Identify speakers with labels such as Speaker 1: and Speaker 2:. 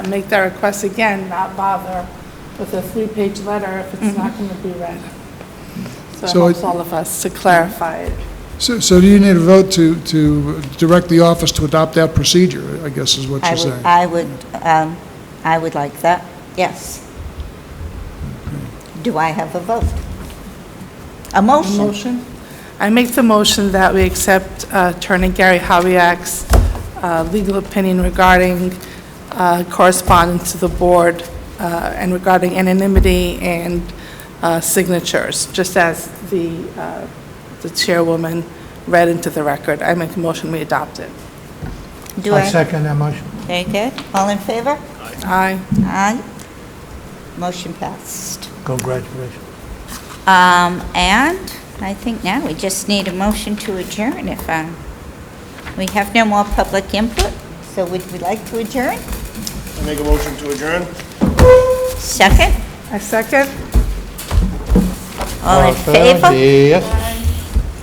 Speaker 1: make that request again, not bother with a three-page letter if it's not going to be read. So it
Speaker 2: So
Speaker 1: helps
Speaker 2: it-
Speaker 1: all of us to clarify it.
Speaker 2: So, so do you need a vote to, to direct the office to adopt that procedure, I guess is what
Speaker 3: I
Speaker 2: you're
Speaker 3: would,
Speaker 2: saying?
Speaker 3: I would, um, I would like that, yes. Do I have a vote? A motion?
Speaker 1: Motion? I make the motion that we accept uh, Attorney Gary Habiak's uh, legal opinion regarding uh, correspondence to the board uh, and regarding anonymity and uh, signatures, just as the uh, the chairwoman read into the record. I make a motion, we adopt it.
Speaker 3: Do
Speaker 4: I
Speaker 3: I?
Speaker 4: second that motion.
Speaker 3: Very good. All in favor?
Speaker 1: Aye.
Speaker 3: Aye. Motion passed.
Speaker 4: Congratulations.
Speaker 3: Um, and I think now we just need a motion to adjourn if, um, we have no more public input, so would we like to adjourn?
Speaker 5: I make a motion to adjourn?
Speaker 3: Second?
Speaker 1: I second.
Speaker 3: All in favor?
Speaker 4: Yes.